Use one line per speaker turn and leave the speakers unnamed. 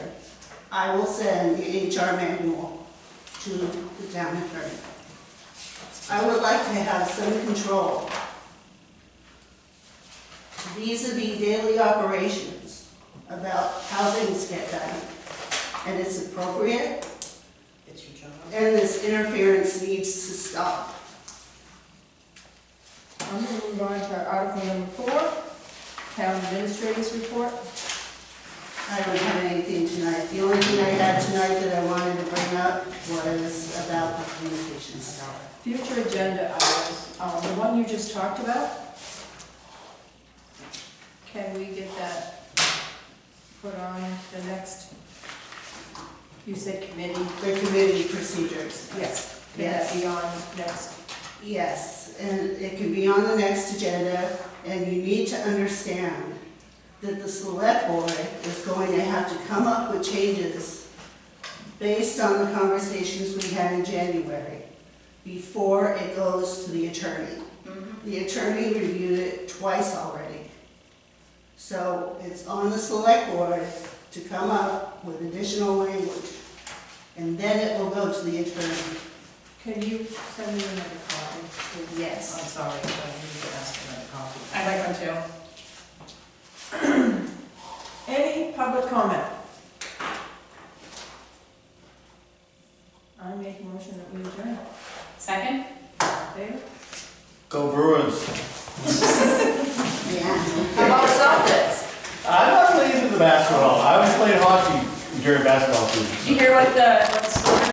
I will send the HR manual to the town attorney. I would like to have some control vis-à-vis daily operations about how things get done. And it's appropriate,
It's your job.
and this interference needs to stop.
I'm going to move on to article number four, town administrators report.
I don't have anything tonight. The only thing I had tonight that I wanted to bring up was about the communications tower.
Future agenda items, um, the one you just talked about. Can we get that put on the next, you said committee?
The committee procedures.
Yes. Can that be on next?
Yes, and it can be on the next agenda, and you need to understand that the select board is going to have to come up with changes based on the conversations we had in January, before it goes to the attorney. The attorney reviewed it twice already. So it's on the select board to come up with additional language, and then it will go to the attorney.
Can you send me another copy?
I'm
Yes.
sorry, but I need to ask for another copy.
I'd like one too.
Any public comment? I make a motion that we adjourn.
Second?
David?
Go Bruins.
Yeah.
How about Celtics?
I'm not really into the basketball. I was playing hockey during basketball season.
Did you hear what the, what the score